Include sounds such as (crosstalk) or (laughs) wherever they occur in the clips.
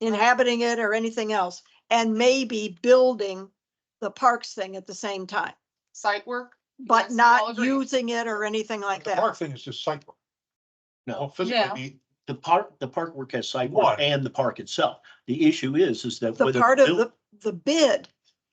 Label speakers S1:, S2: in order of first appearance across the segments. S1: inhabiting it or anything else, and maybe building the parks thing at the same time,
S2: site work.
S1: but
S2: Yes, I'll
S1: not
S2: agree.
S1: using it or anything like
S3: The
S1: that.
S3: park thing is just Oh, site. work.
S4: No.
S3: Well,
S2: Yeah.
S3: Physically,
S4: The park, the park work has site
S3: Why?
S4: work and the park itself. The issue is, is that.
S1: The
S4: whether
S1: part of
S4: buil-
S1: the, the bid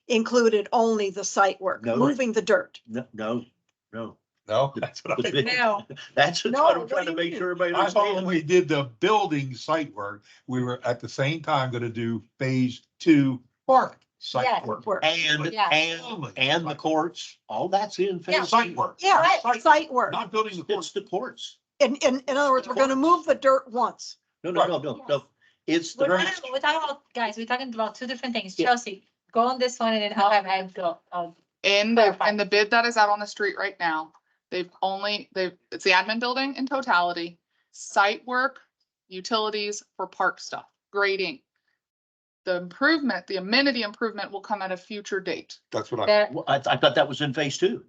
S1: included only the site work,
S4: No.
S1: moving the dirt.
S4: No, no, no.
S3: no, that's what I
S4: The-
S3: think.
S2: No,
S4: (laughs) That's what
S1: No,
S4: I'm
S1: what do
S4: trying to
S1: you
S4: make
S1: mean?
S4: sure everybody
S3: I thought when
S4: understands.
S3: we did the building site work, we were at the same time gonna do phase two park site
S5: Yes.
S3: work.
S1: Work.
S4: And,
S5: Yeah.
S4: and, and the courts, all that's in phase.
S5: Yeah.
S3: Oh Site work.
S1: Yeah,
S3: Site work,
S1: site work.
S3: Not building the
S4: It's
S3: course.
S4: the courts.
S1: In, in, in other words, we're gonna move the dirt once.
S4: No, no, no, no, no. It's the.
S5: We're
S4: courts.
S5: talking, we're talking about, guys, we're talking about two different things.
S4: Yeah.
S5: Chelsea, go on this one and then I'll have Ed go. Oh,
S2: in the, in the bid that is out on the street right now, they've only, they've, it's the admin building in totality, site work, utilities for park stuff, grading. The improvement, the amenity improvement will come at a future date.
S3: That's what I,
S5: there-
S4: Well, I, I thought that was in phase two.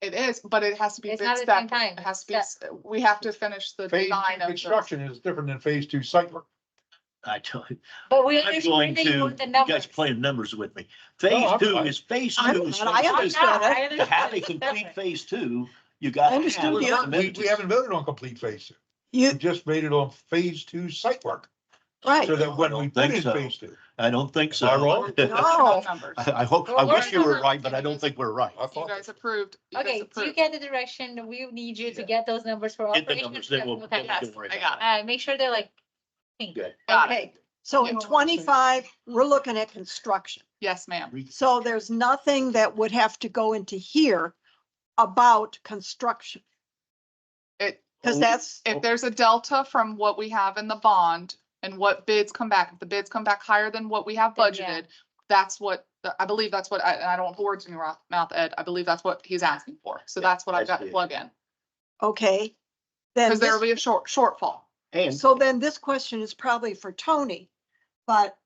S2: It is, but it has to be
S5: It's
S2: bid
S5: not at the same
S2: step.
S5: time.
S2: It has to be, s- we have to finish the
S3: phase
S2: design
S3: two
S2: of the.
S3: construction is different than phase two site work.
S4: I tell you,
S5: But
S4: (laughs)
S5: we.
S4: I'm going to, you guys playing numbers with me. Phase
S3: I'm
S4: two
S3: fine.
S4: is phase
S1: I'm
S4: two. is
S1: not- I
S4: phase two.
S1: understand.
S4: To have a complete phase two, you got.
S1: I understood the
S3: We, we haven't voted on complete phase two. We
S1: You,
S3: just made it on phase two site work.
S1: right.
S3: Mm. So that when we
S4: Think
S3: put in
S4: so.
S3: phase two.
S4: I don't think so.
S3: Am I wrong?
S1: No.
S2: Numbers.
S4: (laughs) I, I hope, I
S5: Well,
S4: wish you
S2: we're-
S4: were right, but I don't think we're right.
S3: I
S2: You
S3: thought-
S2: guys approved. you guys
S5: Okay, do you
S2: approved.
S5: get the direction? We need you to get those numbers for.
S4: Get the
S5: operations.
S4: numbers, then we'll-
S5: Okay.
S4: then
S2: Yes,
S4: Don't worry
S2: I
S4: about
S2: got it.
S5: Uh, make sure they're like. pink.
S4: Good.
S2: Got it.
S1: Okay, so in twenty-five, we're looking at construction.
S2: Yes, ma'am.
S1: So there's nothing that would have to go into here about construction,
S2: It,
S3: Oh.
S1: because that's,
S6: Oh.
S2: if there's a delta from what we have in the bond and what bids come back, if the bids come back higher than what we have
S5: Then yeah.
S2: budgeted, that's what, I believe that's what, I, and I don't want words in your mouth- mouth, Ed, I believe that's what he's asking for. So
S4: Yeah,
S2: that's what I've
S4: that's
S2: got to
S4: the
S2: plug in,
S1: okay. Then
S2: because there
S1: this-
S2: will be a short, shortfall.
S4: And
S1: So then this question is probably for Tony, but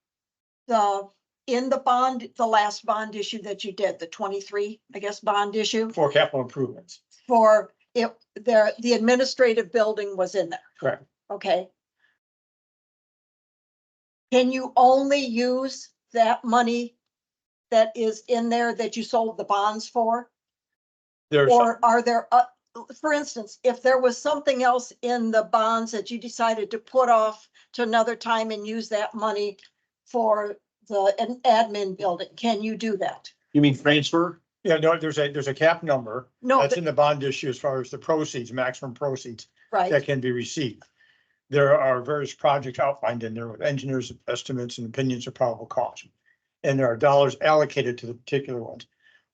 S1: the, in the bond, the last bond issue that you did, the twenty-three, I guess, bond issue
S6: For capital improvements,
S1: for it, there, the administrative building was in there,
S6: correct.
S1: okay? Can you only use that money that is in there that you sold the bonds for?
S6: There's,
S1: Or are there, uh, for instance, if there was something else in the bonds that you decided to put off to another time and use that money for the an admin building, can you do that?
S4: you mean transfer?
S6: yeah, no, there's a, there's a cap number
S1: No,
S6: that's
S1: th-
S6: in the bond issue as far as the proceeds, maximum proceeds that
S1: right,
S6: can be received. There are various projects outlined in there with engineers' estimates and opinions of probable cost. And there are dollars allocated to the particular ones.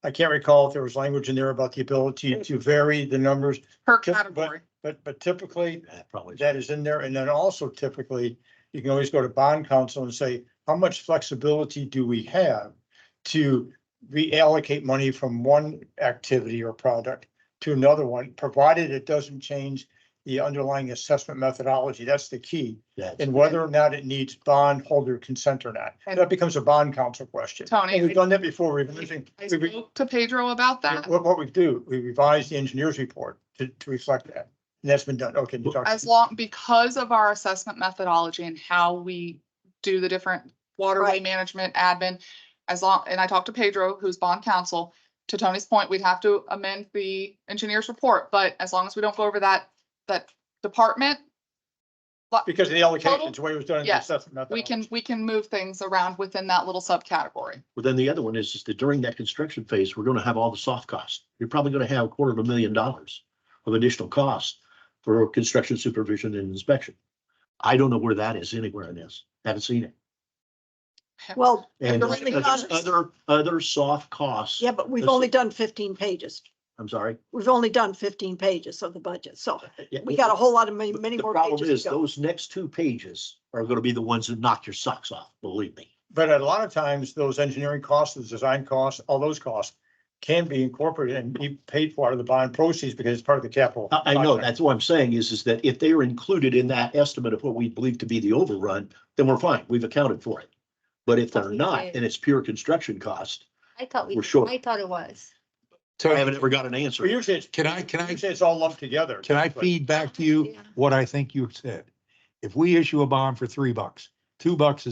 S6: I can't recall if there was language in there about the ability to vary the numbers,
S2: Per
S6: Just- but-
S2: category,
S6: but, but typically
S4: That probably.
S6: that is in there. And then also typically, you can always go to bond council and say, how much flexibility do we have to reallocate money from one activity or product to another one, provided it doesn't change the underlying assessment methodology. That's the key.
S4: That's-
S6: And whether or not it needs bondholder consent or not.
S2: And-
S6: That becomes a bond council question.
S2: Tony,
S6: And
S2: I-
S6: We've done that before. We've, we-
S2: I
S6: we-
S2: spoke to Pedro about that.
S6: what, what we do, we revise the engineer's report to, to reflect that. And that's been done. Okay. you talked-
S2: As long, because of our assessment methodology and how we do the different waterway
S1: Right.
S2: management admin, as long, and I talked to Pedro, who's bond counsel, to Tony's point, we'd have to amend the engineer's report, but as long as we don't go over that, that department,
S6: Because of the allocations, the way it was done. in the
S2: Yes,
S6: assessment method.
S2: we can, we can move things around within that little subcategory.
S4: Well, then the other one is, is that during that construction phase, we're gonna have all the soft costs. You're probably gonna have a quarter of a million dollars of additional costs for construction supervision and inspection. I don't know where that is anywhere in this. Haven't seen it.
S1: well,
S4: And
S2: But the
S4: there's
S1: others-
S4: other, other soft costs.
S1: yeah, but we've
S4: Let's-
S1: only done fifteen pages.
S4: I'm sorry.
S1: We've only done fifteen pages of the budget, so we got a whole lot of many, many
S4: The
S1: more
S4: problem
S1: pages
S4: is
S1: to go.
S4: those next two pages are gonna be the ones that knock your socks off, believe me.
S6: But a lot of times, those engineering costs, those design costs, all those costs can be incorporated and be paid for out of the bond proceeds because it's part of the capital.
S4: I, I know,
S6: project.
S4: that's what I'm saying is, is that if they are included in that estimate of what we believe to be the overrun, then we're fine, we've accounted for it. But if they're not, and it's pure construction cost,
S5: I thought we,
S4: We're short.
S5: I thought it was.
S4: I
S3: Tony,
S4: haven't ever got an
S6: But
S4: answer.
S6: usually it's.
S3: Can I- can I-
S6: Usually it's all lumped together.
S3: Can I
S6: but-
S3: feed back to you
S5: Yeah.
S3: what I think you said? If we issue a bond for three bucks, two bucks is